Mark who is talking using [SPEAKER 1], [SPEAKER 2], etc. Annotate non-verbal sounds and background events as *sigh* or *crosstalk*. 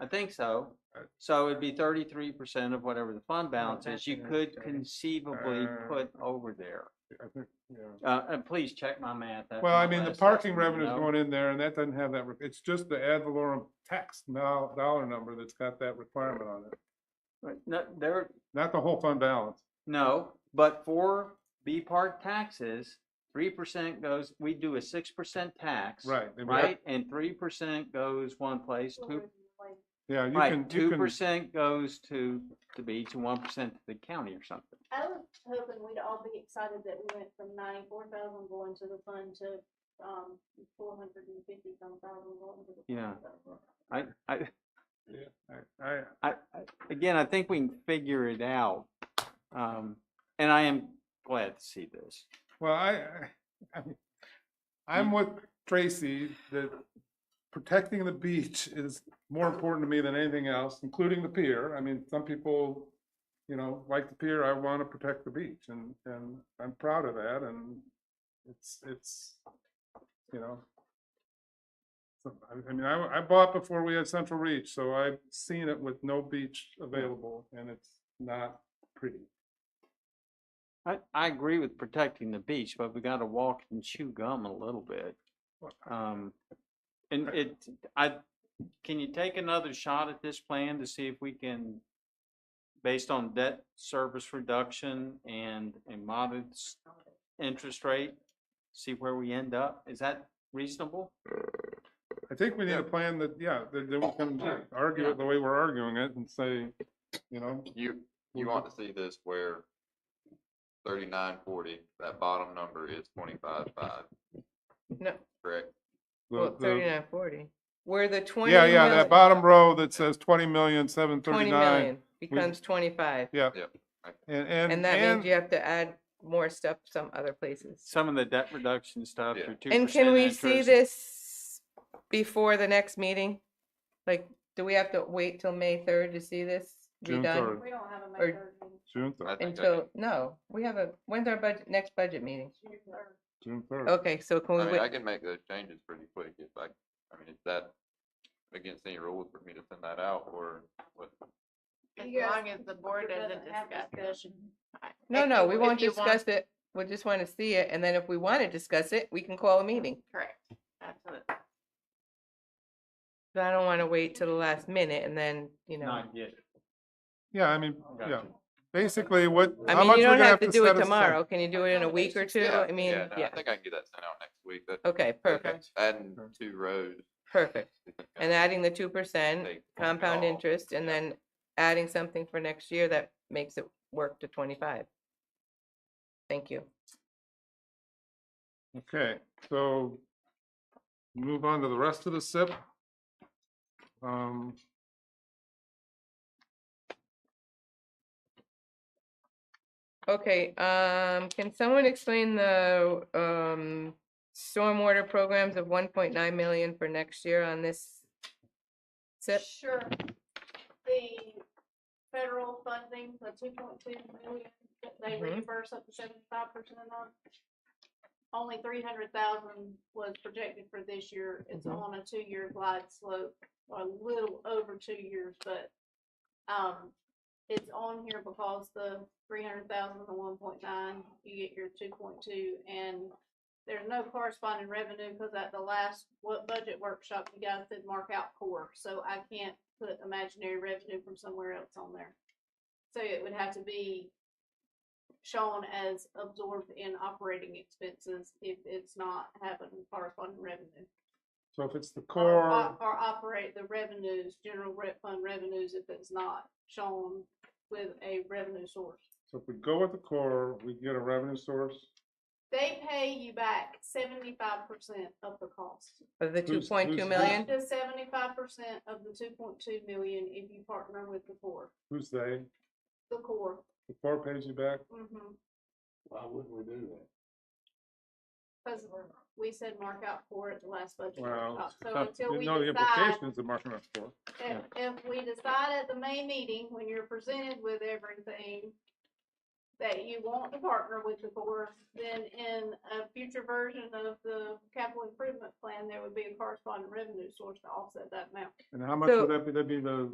[SPEAKER 1] I think so.
[SPEAKER 2] Uh,
[SPEAKER 1] So it'd be thirty-three percent of whatever the fund balance is,
[SPEAKER 2] that's
[SPEAKER 1] you
[SPEAKER 2] an
[SPEAKER 1] could
[SPEAKER 2] estimate.
[SPEAKER 1] conceivably
[SPEAKER 2] Uh,
[SPEAKER 1] put over there.
[SPEAKER 2] I think, yeah.
[SPEAKER 1] Uh, and please check my math. that's
[SPEAKER 2] Well, I
[SPEAKER 1] my
[SPEAKER 2] mean, the
[SPEAKER 1] last
[SPEAKER 2] parking
[SPEAKER 1] estimate,
[SPEAKER 2] revenue's
[SPEAKER 1] no?
[SPEAKER 2] going in there and that doesn't have that, re- it's just the ad valorem tax now, dollar number that's got that requirement on it.
[SPEAKER 1] Right, No, there,
[SPEAKER 2] Not the whole fund balance.
[SPEAKER 1] no, but for B park taxes, three percent goes, we do a six percent tax.
[SPEAKER 2] Right, then we have-
[SPEAKER 1] Right, and three percent goes one place, two,
[SPEAKER 2] Yeah, you
[SPEAKER 1] right,
[SPEAKER 2] can,
[SPEAKER 1] two
[SPEAKER 2] you can,
[SPEAKER 1] percent goes to the beach and one percent to the county or something.
[SPEAKER 3] I was hoping we'd all be excited that we went from ninety-four thousand going to the fund to, um, four hundred and fifty some thousand going to the. fund,
[SPEAKER 1] Yeah.
[SPEAKER 3] but-
[SPEAKER 1] I, I,
[SPEAKER 2] I, I-
[SPEAKER 1] I, I- again, I think we can figure it out. Um, and I am glad to see this.
[SPEAKER 2] well, I, *laughs* I- I'm- I'm with Tracy that protecting the beach is more important to me than anything else, including the pier. I mean, some people, you know, like the pier, I want to protect the beach and, and I'm proud of that and it's, it's, you know. so, I- I mean, I, I bought before we had Central Reach, so I've seen it with no beach available and it's not pretty.
[SPEAKER 1] I, I agree with protecting the beach, but we gotta walk and chew gum a little bit.
[SPEAKER 2] Well,
[SPEAKER 1] Um, and
[SPEAKER 2] I-
[SPEAKER 1] it, I, can you take another shot at this plan to see if we can, based on debt service reduction and a modest interest rate, see where we end up? Is that reasonable?
[SPEAKER 2] I think we need
[SPEAKER 4] Yeah.
[SPEAKER 2] a plan that, yeah, that, that we can argue it the way we're arguing it and say, you know,
[SPEAKER 4] You, you
[SPEAKER 5] Mm-hmm.
[SPEAKER 4] want to see this where thirty-nine forty, that bottom number is twenty-five five.
[SPEAKER 5] No.
[SPEAKER 4] Correct?
[SPEAKER 2] the,
[SPEAKER 5] Well,
[SPEAKER 2] the.
[SPEAKER 5] thirty-nine forty, where the twenty
[SPEAKER 2] Yeah, yeah, that
[SPEAKER 5] million-
[SPEAKER 2] bottom row that says twenty million, seven
[SPEAKER 5] 20
[SPEAKER 2] thirty-nine.
[SPEAKER 5] million Becomes twenty-five,
[SPEAKER 2] And, and.
[SPEAKER 5] and that means
[SPEAKER 2] and-
[SPEAKER 5] you have to add more stuff some other places.
[SPEAKER 1] Some of the debt reduction stuff,
[SPEAKER 4] Yeah.
[SPEAKER 1] your two percent
[SPEAKER 5] And
[SPEAKER 1] interest.
[SPEAKER 5] can we see this before the next meeting? Like, do we have to wait till May third to see this
[SPEAKER 2] June
[SPEAKER 5] redone?
[SPEAKER 2] 3rd.
[SPEAKER 3] We don't have a
[SPEAKER 5] Or-
[SPEAKER 3] May third meeting,
[SPEAKER 2] June third,
[SPEAKER 4] I think I
[SPEAKER 5] Until, no, we have a, when's our budget, next budget meeting?
[SPEAKER 3] June third.
[SPEAKER 2] June third.
[SPEAKER 5] Okay, so can
[SPEAKER 4] can-
[SPEAKER 5] we
[SPEAKER 4] I mean, I
[SPEAKER 5] wait?
[SPEAKER 4] can make those changes pretty quick if I, I mean, is that against any rules for me to send that out or what?
[SPEAKER 6] As
[SPEAKER 3] You guys-
[SPEAKER 6] long as the board doesn't
[SPEAKER 3] have
[SPEAKER 6] discuss it.
[SPEAKER 3] discussion.
[SPEAKER 6] I-
[SPEAKER 5] No,
[SPEAKER 6] if
[SPEAKER 5] no,
[SPEAKER 6] you-
[SPEAKER 5] we
[SPEAKER 6] if
[SPEAKER 5] won't
[SPEAKER 6] you want-
[SPEAKER 5] discuss it, we just wanna see it, and then if we wanna discuss it, we can call a meeting.
[SPEAKER 6] Correct, absolutely.
[SPEAKER 5] But I don't wanna wait till the last minute and then, you know.
[SPEAKER 1] Not yet.
[SPEAKER 2] Yeah, I mean,
[SPEAKER 1] Gotcha.
[SPEAKER 2] yeah, basically what,
[SPEAKER 5] I
[SPEAKER 2] how
[SPEAKER 5] mean,
[SPEAKER 2] much
[SPEAKER 5] you
[SPEAKER 2] we're
[SPEAKER 5] don't
[SPEAKER 2] gonna
[SPEAKER 5] have
[SPEAKER 2] have
[SPEAKER 5] to
[SPEAKER 2] to
[SPEAKER 5] do it
[SPEAKER 2] set aside.
[SPEAKER 5] tomorrow, can you do it in a week or two? I mean,
[SPEAKER 4] no,
[SPEAKER 5] yeah,
[SPEAKER 4] I think I can get that sent out next week. That,
[SPEAKER 5] okay, perfect,
[SPEAKER 4] adding
[SPEAKER 2] Sure.
[SPEAKER 4] two rows.
[SPEAKER 5] perfect.
[SPEAKER 4] is gonna
[SPEAKER 5] And adding the two percent
[SPEAKER 4] take-
[SPEAKER 5] compound
[SPEAKER 4] all-
[SPEAKER 5] interest and
[SPEAKER 4] yeah.
[SPEAKER 5] then adding something for next year that makes it work to twenty-five. Thank you.
[SPEAKER 2] Okay, so move on to the rest of the SIP. Um,
[SPEAKER 5] Okay, um, can someone explain the, um, stormwater programs of one point nine million for next year on this? SIP?
[SPEAKER 3] Sure. The federal funding, the two point two million that they
[SPEAKER 5] Mhm.
[SPEAKER 3] reimburse up to seventy-five percent of. Only three hundred thousand was projected for this year. It's
[SPEAKER 5] Mhm.
[SPEAKER 3] on a two-year glide slope, a little over two years, but, um, it's on here because the three hundred thousand and one point nine, you get your two point two, and there's no corresponding revenue, because at the last, what budget workshop, you guys did mark out core, so I can't put imaginary revenue from somewhere else on there. So it would have to be shown as absorbed in operating expenses if it's not having corresponding revenue.
[SPEAKER 2] so if it's the
[SPEAKER 3] Or,
[SPEAKER 2] core,
[SPEAKER 3] op- or operate the revenues, general rep fund revenues, if it's not shown with a revenue source.
[SPEAKER 2] so if we go with the core, we get a revenue source.
[SPEAKER 3] They pay you back seventy-five percent of the cost.
[SPEAKER 5] Of the two
[SPEAKER 2] Who's-
[SPEAKER 5] point two
[SPEAKER 2] who's-
[SPEAKER 5] million?
[SPEAKER 3] Up to seventy-five percent of the two point two million if you partner with the core,
[SPEAKER 2] Who's they?
[SPEAKER 3] the core.
[SPEAKER 2] The core pays you back?
[SPEAKER 3] Mhm.
[SPEAKER 2] Why wouldn't we do that?
[SPEAKER 3] Cause we said mark out core at the last budget
[SPEAKER 2] Well,
[SPEAKER 3] workshop, Oh, so until
[SPEAKER 2] you
[SPEAKER 3] we
[SPEAKER 2] know the
[SPEAKER 3] decide,
[SPEAKER 2] implications of marking up for.
[SPEAKER 3] if, if we decide at the May meeting, when you're presented with everything, that you want to partner with the board, then in a future version of the capital improvement plan, there would be a corresponding revenue source to offset that amount.
[SPEAKER 2] And how much would
[SPEAKER 5] So-
[SPEAKER 2] that be, that'd be the